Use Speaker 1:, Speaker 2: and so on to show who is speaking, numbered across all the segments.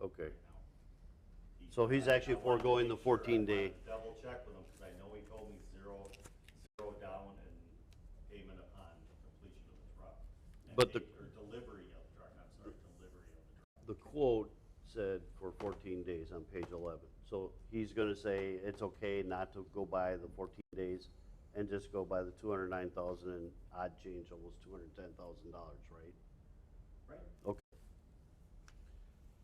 Speaker 1: Okay.
Speaker 2: you know. He-
Speaker 1: So he's
Speaker 2: I- I
Speaker 1: actually
Speaker 2: wanted to
Speaker 1: foregoing the
Speaker 2: make sure. I
Speaker 1: 14 day.
Speaker 2: wanted to Double check with him, because I know he told me zero, zero down and payment upon completion of the truck. And
Speaker 1: But the-
Speaker 2: take- Or delivery of the truck, I'm sorry, delivery of the truck.
Speaker 1: The quote said for fourteen days on page eleven. So he's gonna say it's okay not to go by the fourteen days and just go by the two hundred nine thousand and odd change, almost two hundred ten thousand dollars, right?
Speaker 2: Right.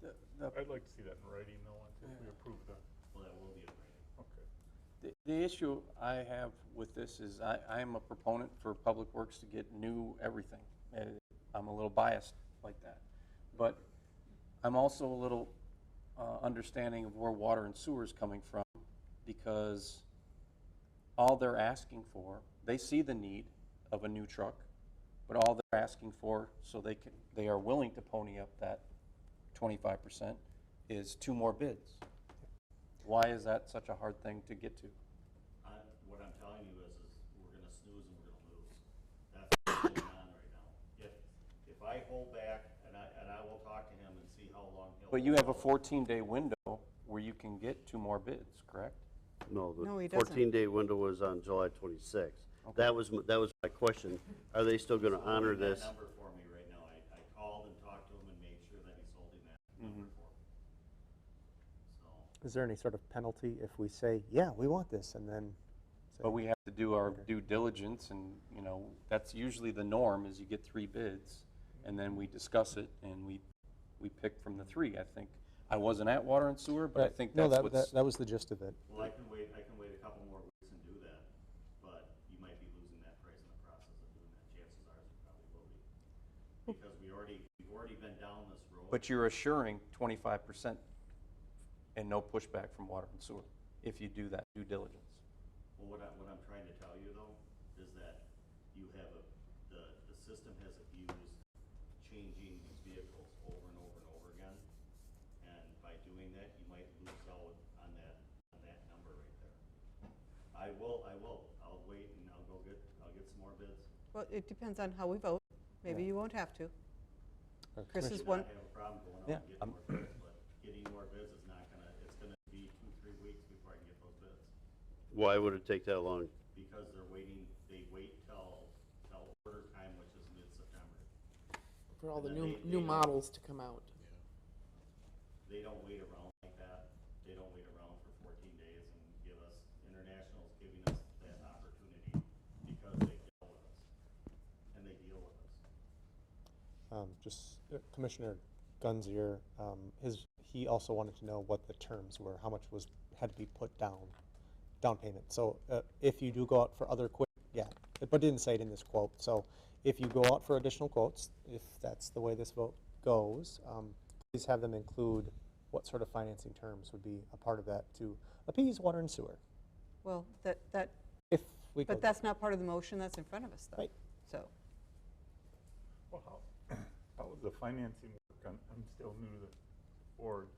Speaker 3: The, the,
Speaker 4: I'd like to see that in writing though, if we approve that,
Speaker 2: Well, that will be a great.
Speaker 4: okay.
Speaker 3: the- the issue I have with this is I, I'm a proponent for Public Works to get new everything. Uh, I'm a little biased like that. But I'm also a little uh, understanding of where water and sewer is coming from because all they're asking for, they see the need of a new truck, but all they're asking for, so they can, they are willing to pony up that twenty-five percent, is two more bids. Why is that such a hard thing to get to?
Speaker 2: I, what I'm telling you is, is we're gonna snooze and we're gonna lose. That's what's going on right now. If, if I hold back, and I, and I will talk to him and see how long he'll.
Speaker 3: But you have a
Speaker 2: hold.
Speaker 3: fourteen day window where you can get two more bids, correct?
Speaker 1: No,
Speaker 5: No,
Speaker 1: the
Speaker 5: he doesn't.
Speaker 1: fourteen day window was on July twenty-sixth. That was, m- that was my question. Are they still gonna honor
Speaker 2: Hold that
Speaker 1: this?
Speaker 2: Number for me right now. I, I called and talked to him and made sure that he's holding that number for me. So,
Speaker 6: Is there any sort of penalty if we say, yeah, we want this, and then
Speaker 3: But we have to do our due diligence and, you know, that's usually the norm is you get three bids and then we discuss it and we, we pick from the three, I think. I wasn't at water and sewer, but I
Speaker 6: Right.
Speaker 3: think
Speaker 6: no,
Speaker 3: that's
Speaker 6: that,
Speaker 3: what's,
Speaker 6: that that was the gist of it.
Speaker 2: well, I can wait, I can wait a couple more weeks and do that, but you might be losing that price in the process of doing that. Chances are, you probably will be. Because we already, we've already been down this road.
Speaker 3: but you're assuring twenty-five percent and no pushback from water and sewer if you do that due diligence.
Speaker 2: Well, what I, what I'm trying to tell you though, is that you have a, the, the system has abused changing these vehicles over and over and over again. And by doing that, you might lose out on that, on that number right there. I will, I will, I'll wait and I'll go get, I'll get some more bids.
Speaker 5: Well, it depends on how we vote. Maybe you won't have to.
Speaker 6: Uh,
Speaker 5: Chris
Speaker 6: Commissioner-
Speaker 5: is one,
Speaker 2: I have a problem going
Speaker 3: Yeah,
Speaker 2: out and getting more bids, but getting more bids is not gonna, it's gonna be two, three weeks before I can get those bids.
Speaker 1: Why would it take that long?
Speaker 2: because they're waiting, they wait till, till order time, which is mid-September.
Speaker 7: for all the
Speaker 2: And
Speaker 7: new,
Speaker 2: they-
Speaker 7: new
Speaker 2: they-
Speaker 7: models to come out.
Speaker 2: They don't wait around like that. They don't wait around for fourteen days and give us, internationals giving us that opportunity because they deal with us. And they deal with us.
Speaker 6: um, just uh, Commissioner Gunzier, um, his he also wanted to know what the terms were, how much was had to be put down, down payment. So uh, if you do go out for other quick, yeah, but didn't say it in this quote. So if you go out for additional quotes, if that's the way this vote goes, um, please have them include what sort of financing terms would be a part of that to appease water and sewer.
Speaker 5: well, that, that,
Speaker 6: If we go
Speaker 5: but that's not part of the motion that's in front of us, though.
Speaker 6: Right.
Speaker 5: So,
Speaker 4: Well, how, how would the financing work? I'm, I'm still new to the board.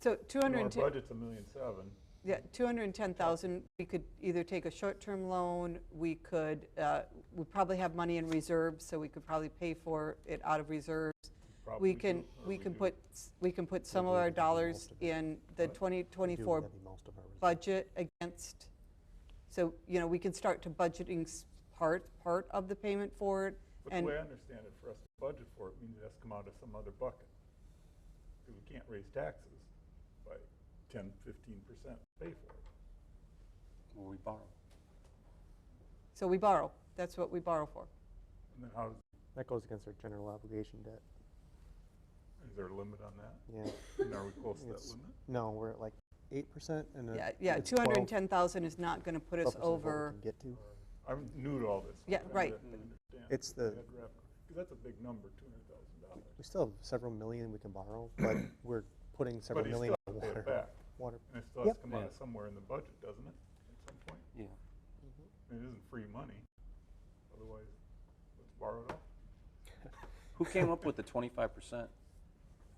Speaker 5: so
Speaker 4: You know,
Speaker 5: 210,
Speaker 4: Our budget's a million seven.
Speaker 5: yeah, 210,000, we could either take a short-term loan, we could, uh, we probably have money in reserves, so we could probably pay for it out of reserves.
Speaker 4: probably
Speaker 5: We
Speaker 4: do,
Speaker 5: can,
Speaker 4: or
Speaker 5: we can
Speaker 4: do.
Speaker 5: put, s- we can put some of
Speaker 6: believe
Speaker 5: our
Speaker 6: we do most
Speaker 5: dollars
Speaker 6: of it.
Speaker 5: in the
Speaker 6: we do,
Speaker 5: 2024
Speaker 6: that'd be most of our reserves.
Speaker 5: budget against, so, you know, we can start to budgeting s- part, part of the payment for it.
Speaker 4: But the
Speaker 5: And
Speaker 4: way I understand it, for us to budget for it means it has to come out of some other bucket. 'Cause we can't raise taxes by ten, fifteen percent to pay for it.
Speaker 3: Will we borrow?
Speaker 5: so we borrow, that's what we borrow for.
Speaker 4: And then how, does-
Speaker 6: that goes against our general obligation debt.
Speaker 4: is there a limit on that?
Speaker 6: Yeah.
Speaker 4: And are we close to that
Speaker 6: It's-
Speaker 4: limit?
Speaker 6: No, we're at like eight percent and a.
Speaker 5: Yeah, yeah,
Speaker 6: it's 12
Speaker 5: 210,000 is not going to put us
Speaker 6: 12% of what we
Speaker 5: over,
Speaker 6: can Get to,
Speaker 4: I'm new to all this. so I'm
Speaker 5: Yeah,
Speaker 4: trying
Speaker 5: right.
Speaker 4: to understand
Speaker 6: It's
Speaker 4: what
Speaker 6: the-
Speaker 4: that rep- Cause that's a big number, two hundred thousand dollars.
Speaker 6: we still have several million we can borrow, but we're putting several
Speaker 4: But you
Speaker 6: million
Speaker 4: still
Speaker 6: in
Speaker 4: have to pay it
Speaker 6: water.
Speaker 4: back.
Speaker 6: Water,
Speaker 4: And it still has to
Speaker 6: Yep.
Speaker 4: come out of
Speaker 3: Yeah.
Speaker 4: somewhere in the budget, doesn't it, at some point?
Speaker 3: Yeah.
Speaker 4: It isn't free money, otherwise, let's borrow it all.
Speaker 3: Who came up with the twenty-five percent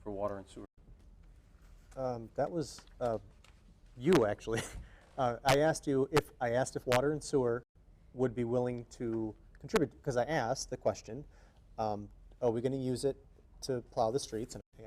Speaker 3: for water and sewer?
Speaker 6: um, that was, uh, you actually. Uh, I asked you if, I asked if water and sewer would be willing to contribute, because I asked the question, um, are we gonna use it to plow the streets? And